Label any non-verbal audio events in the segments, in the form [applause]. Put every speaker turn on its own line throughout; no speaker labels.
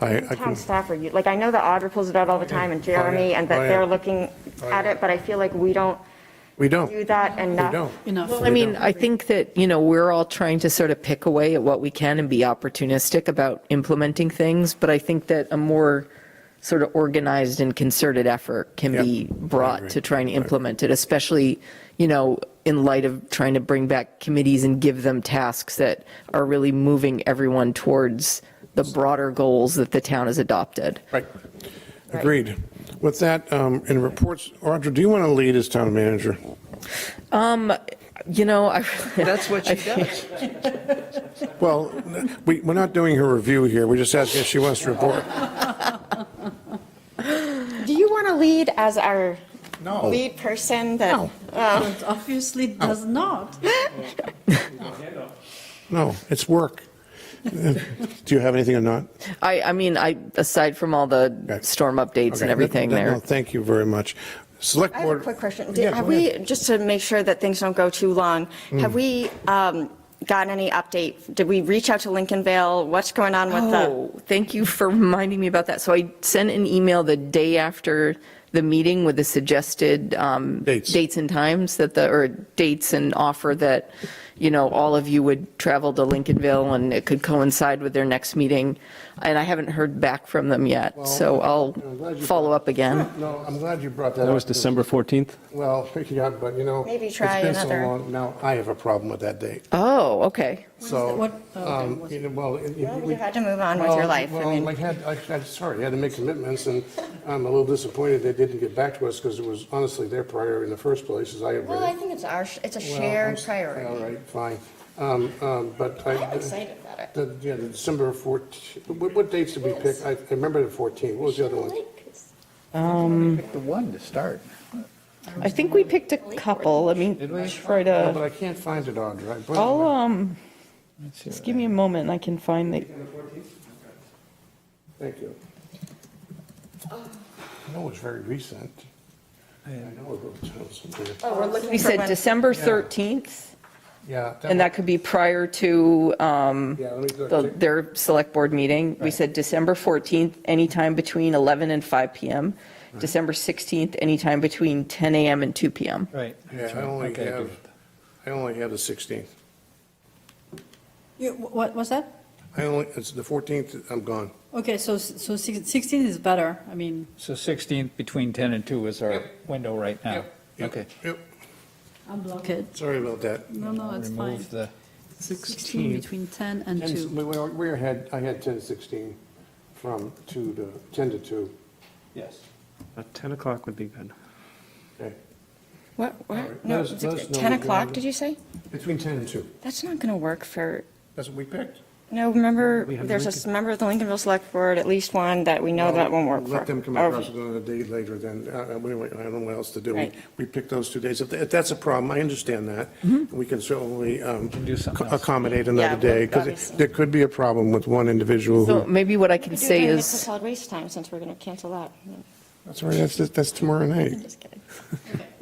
I, I
Town
can,
Stafford, you- like, I know that Audra pulls it out all the time, and Jeremy, and
Oh,
that
yeah.
they're looking
Oh,
at
yeah.
it, but I feel like we don't
we don't,
do
we
that enough.
don't.
Well, I mean, I think that, you know, we're all trying to sort of pick away at what we can and be opportunistic about implementing things, but I think that a more sort of organized and concerted effort can
Yep.
be
I agree.
brought to try and implement it, especially, you know, in light of trying to bring back committees and give them tasks that are really moving everyone towards the broader goals that the town has adopted.
Right. Agreed. With that, um, in reports, Audra, do you want to lead as town manager?
You know, I, [laughs]
That's what she does.
Well, we, we're not doing her review here. We're just asking if she wants to report.
Do you want to lead as our
No.
lead person that?
No.
But obviously it does not.
No, it's work. [laughs] Do you have anything or not?
I, I mean, I, aside from all the
Okay.
storm updates
Okay,
and
no,
everything
no,
there.
no, Thank you very much. Select
I have
board.
a quick question.
Yeah,
Did- Have
go ahead. Mm.
we, just to make sure that things don't go too long, have we um, gotten any update? Did we reach out to Lincolnville? What's going on with the?
Oh, thank you for reminding me about that. So I sent an email the day after the meeting with the suggested um,
Dates.
and times that the, or dates and offer that, you know, all of you would travel to Lincolnville and it could coincide with their next meeting. And I haven't heard back from them yet, so I'll
I'm glad you
follow up
[laughs]
again.
No, I'm glad you brought that up.
That was December 14th?
Well, [laughs] yeah, but you know.
Maybe try
It's been so
another-
long, now I have a problem with that date.
Oh, okay.
So,
what- oh,
um, you know, well. it- it-
You
we-
had to move on with your
Well,
life. I
Well, I
mean,
had, I, I'm sorry, I had to make commitments, and I'm a little disappointed they didn't get back to us, because it was honestly their priority in the first place, as I have read it.
well, I think it's our, it's a
Well,
shared
I'm s- All
priority.
right, fine. Um, um, But I.
I'm excited about it.
The- Yeah, the December 14, what, what dates did we pick? I I remember the 14, what was the other one?
Pick the one to start.
I think we picked a couple. Let me try
No,
to,
Oh, But I can't find it, Audra. I put it
uh, I'll,
on-
um, just give me a moment and I can find the.
Thank you.
Oh.
I know it's very recent. I know it was something.
Oh, we're looking
We
for
said
when-
December 13th,
Yeah.
and that could be prior to um,
Yeah, let me
the-
look.
their select board meeting. We said December 14th, anytime between 11 and 5 PM. December 16th, anytime between 10 AM and 2 PM.
Right.
Yeah, I only
Okay,
have, I only have the 16th.
You- What was that?
I only, it's the 14th, I'm gone.
Okay, so, so 16 is better. I mean,
So 16th between 10 and 2 is our window right now.
Yep,
Okay.
Yep,
I'm blocked.
sorry about that.
No, no, it's Oh, fine.
Remove the,
16 between 10 and
And
2.
we we- we had, I had 10 to 16 from 2 to, 10 to 2.
yes.
About 10 o'clock would be good.
Okay.
What,
All
what?
right.
No,
Let us-
it's
let us know what
10
you
o'clock,
want.
did you say?
Between 10 and 2.
That's not going to work for,
That's what we picked.
no, remember,
We have
there's a s-
Lincoln-
member of the Lincolnville Select Board, at least one, that we know that won't work for. Oh.
Let them come
or-
across with another date later then. Uh, uh, we- we- I don't know what else to do. We-
Right.
We picked those two days. If th- if that's a problem, I understand that. We can certainly um,
do something
ac-
else.
accommodate
Mm-hmm. Yeah,
another day because
obviously.
there could be a problem with one individual
So
who.
maybe what I can
We could do it
say
during
is.
Mixed solid waste time, since we're going to cancel that.
That's all right, that's, that's tomorrow
Mm.
night.
Just kidding.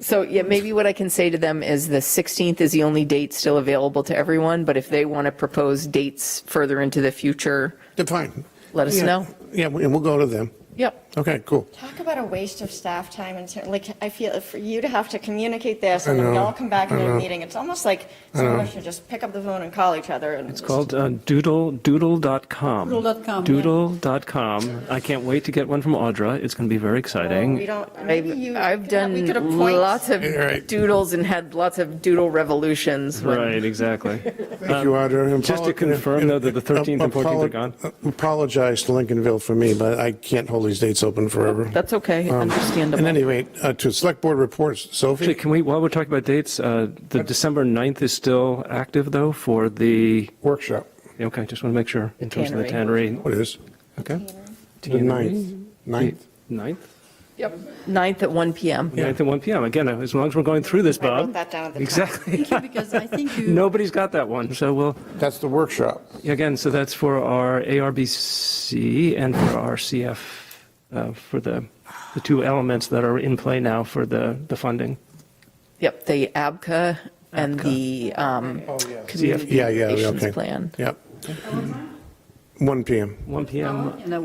So, yeah, maybe what I can say to them is the 16th is the only date still available to everyone, but if they want to propose dates further into the future,
Then Fine.
Let us
Yeah,
know.
Yeah, we- and we'll go to them.
yep.
Okay, cool.
Talk about a waste of staff time and, cer- like, I feel for you to have to communicate this
I
and then we
know,
all come back
I
in a
know.
meeting, it's almost like some of us should just pick up the phone and call each other and.
It's called uh, Doodle, doodle.com.
Doodle.com, yeah.
Doodle.com. I can't wait to get one from Audra. It's going to be very
We
exciting.
don't, maybe you.
I've
could- we
done
could appoint-
lots of
All right.
doodles and had lots of doodle revolutions when
Right, exactly.
Thank you, Audra. And
Um, just to
apolo-
confirm, though, that the 13th and 14th are gone?
Apologize to Lincolnville for me, but I can't hold these dates open forever.
That's okay,
Um,
understandable.
And anyway, uh, to Select Board reports,
Actually,
Sophie?
can we, while we're talking about dates, uh, the December 9th is still active, though, for the,
Workshop.
okay, just want to make sure. in terms of The tannery.
What is?
Okay.
The ninth. Ninth?
9th?
Yep, 9th at 1 PM.
9th at 1 PM. Again, as long as we're going through this,
I
Bob.
wrote that down at the top.
Exactly.
Because I think
[laughs]
you.
Nobody's got that one, so we'll,
That's the workshop.
Again, so that's for our ARBC and for our CF, uh, for the, the two elements that are in play now for the, the funding.
Yep, the ABCA and the um,
Oh,
Community
Yeah, yeah,
Relations
okay.
Plan.
Yep. 1 PM.
1 PM
um,
And I